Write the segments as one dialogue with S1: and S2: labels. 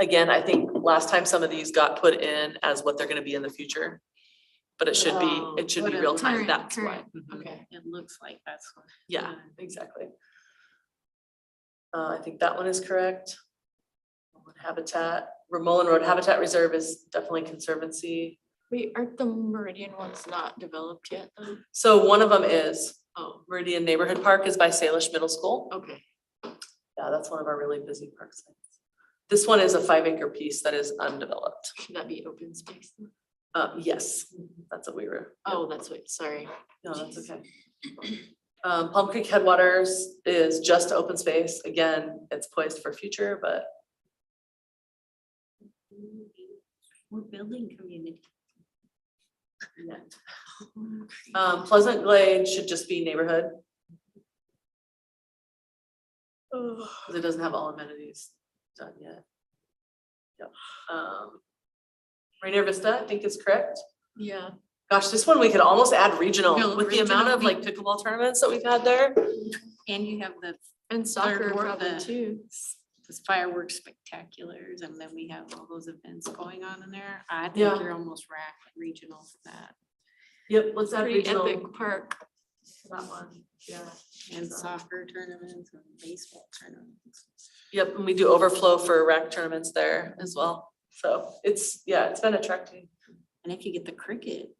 S1: Again, I think last time some of these got put in as what they're gonna be in the future. But it should be,
S2: Oh,
S1: it should be
S2: what a
S1: real time,
S3: current-
S1: that's why.
S3: current.
S1: Mhm.
S2: Okay,
S3: It looks like that's what.
S1: Yeah, exactly. Uh, I think that one is correct. Romulan Habitat, Ramon Road Habitat Reserve is definitely conservancy.
S2: wait, aren't the Meridian ones not developed yet though?
S1: So one of them is
S2: Oh,
S1: Meridian Neighborhood Park is by Salish Middle School.
S2: okay.
S1: Yeah, that's one of our really busy park sites. This one is a five acre piece that is undeveloped.
S2: Should that be open space? then?
S1: Uh, yes, that's what we were.
S2: Oh, that's what, sorry.
S1: No, that's okay. Um, Palm Creek Headwaters is just open space. Again, it's poised for future, but
S3: We're building community.
S1: um, Pleasant Glade should just be neighborhood. Cause it doesn't have all amenities done yet. Yep. Um, Rainier Vista, I think is correct.
S2: Yeah.
S1: Gosh, this one we could almost add regional
S2: No,
S1: with the amount
S2: regional,
S1: of like pickleball tournaments that we've had there.
S3: And you have the,
S2: And soccer
S3: Third War
S2: probably
S3: the-
S2: too.
S3: the fireworks spectaculars and then we have all those events going on in there. I
S1: Yeah.
S3: think you're almost rack regional for that.
S1: Yep, let's add
S2: Pretty
S1: regional.
S2: epic park.
S1: to That one, yeah.
S3: And
S1: So-
S3: soccer tournaments and baseball tournaments.
S1: Yep, and we do overflow for rec tournaments there as well. So it's, yeah, it's been attracting.
S3: And if you get the cricket.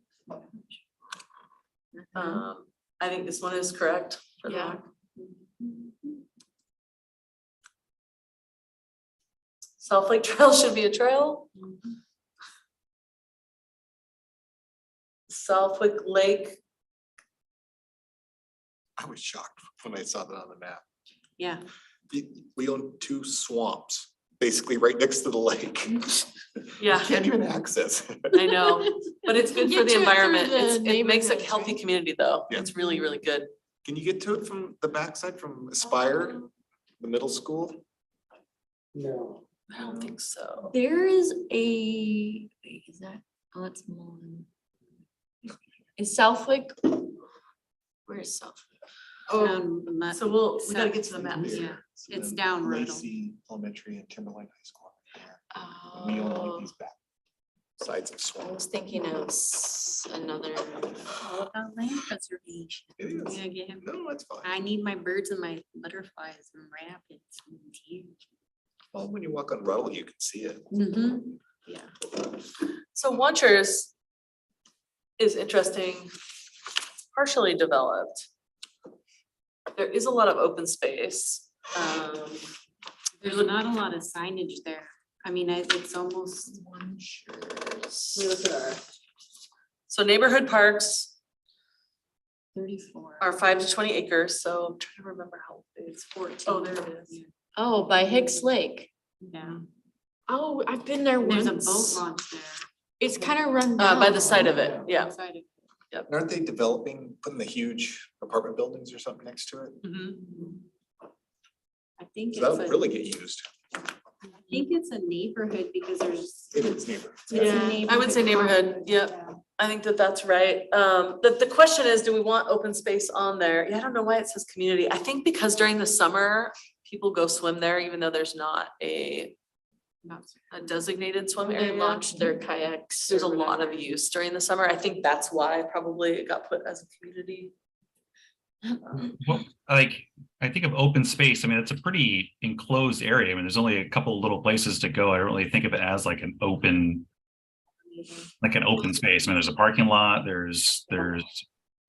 S1: Um, I think this one is correct. for the
S2: Yeah.
S1: rock. South Lake Trail should be a trail. Southwick Lake,
S4: I was shocked when I saw that on the map.
S3: Yeah,
S4: The- We own two swamps, basically right next to the lake. You
S1: yeah,
S4: Can't even access. it.
S1: I know, but it's good
S2: You
S1: for
S2: get
S1: the
S2: to it through
S1: environment.
S2: the
S1: It's- It makes a
S2: neighborhoods,
S1: healthy
S2: right?
S1: community though.
S4: Yeah.
S1: It's really, really good.
S4: Can you get to it from the backside from Aspire,
S2: Um,
S4: the middle school?
S5: No.
S1: I don't think so.
S2: There is a, wait, is that, oh, that's Mullen. Is Southwick? Where is Southwick? Oh,
S3: down the mud-
S1: So we'll, we gotta get to the map.
S3: South- Yeah, it's down Riddle.
S4: Lacey Elementary and Timberline High School. And We own like
S2: oh,
S4: these back sides of
S2: I
S4: swamps.
S2: was thinking of s- another.
S3: all about land preservation.
S4: It is.
S3: Yeah, yeah.
S4: No, that's fine.
S3: I need my birds and my butterflies and rabbits and deer.
S4: Well, when you walk on Ruddle, you can see it.
S3: Mm-hmm. Yeah.
S1: So Watchers is interesting, partially developed. There is a lot of open space. Um,
S3: There's not a lot of signage there. I mean, I- it's almost,
S1: let me look at our- So neighborhood parks
S3: Thirty-four.
S1: are five to twenty acres, so I'm trying to remember how big.
S3: It's fourteen.
S1: Oh, there it is.
S2: Oh, by Hicks Lake.
S3: Yeah.
S2: Oh, I've been there
S3: And There's a boat
S2: once.
S3: launch there.
S2: It's kind of run
S1: Uh,
S2: down.
S1: by the side of it, yeah.
S3: outside of-
S4: Aren't they developing, putting the huge apartment buildings or something next to it?
S1: Mhm.
S3: I think it's
S4: So
S3: a,
S4: That would
S3: I
S4: really get used.
S3: think it's a neighborhood because there's.
S4: It is neighborhood.
S3: it's a
S1: Yeah, I would say neighborhood, yep. I think that that's right. Um, the, the question is, do we want open space on there? Yeah, I don't know why it says community. I think because during the summer, people go swim there, even though there's not a,
S3: Not-
S1: a designated swim
S2: They
S1: area.
S2: launched their kayaks.
S1: There's a
S2: or
S1: lot
S2: whatever.
S1: of use during the summer. I think that's why probably it got put as a community.
S6: Well, like, I think of open space, I mean, it's a pretty enclosed area. I mean, there's only a couple little places to go. I don't really think of it as like an open, like an open space. I mean, there's a parking lot, there's, there's,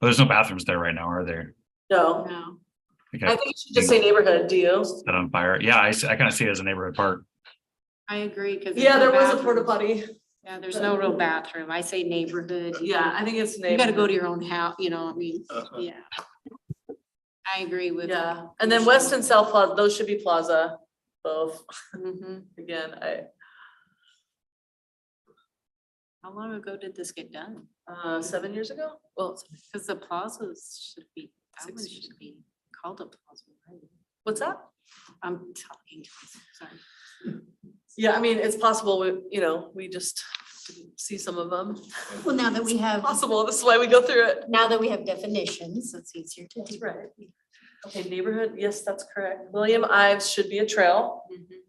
S6: well, there's no bathrooms there right now, are there?
S1: No,
S3: No,
S6: I think
S1: I
S6: I
S1: think you should just say neighborhood, do you?
S6: set on fire. Yeah, I, s- I kind of see it as a neighborhood park.
S3: I agree, because.
S1: Yeah, there was a porta potty.
S3: Yeah, there's no real bathroom. I say neighborhood. you
S1: Yeah, I think it's
S3: You gotta go
S1: neighborhood.
S3: to your own house, you know, I mean,
S4: Uh-huh.
S3: yeah. I agree with.
S1: Yeah, and then west and south plaza, those should be plaza, both.
S3: Mhm.
S1: Again, I,
S3: How long ago did this get done?
S1: uh, seven years ago? Well,
S3: Because the plazas should be, that one
S1: Six years
S3: should be called a plaza, right?
S1: what's that?
S3: I'm talking, sorry.
S1: Yeah, I mean, it's possible, we you know, we just didn't see some of them.
S7: Well, now that we have,
S1: Possible, this is why we go through it.
S7: now that we have definitions, it's easier to.
S1: right. Okay, neighborhood, yes, that's correct. William Ives should be a trail.
S3: Mhm.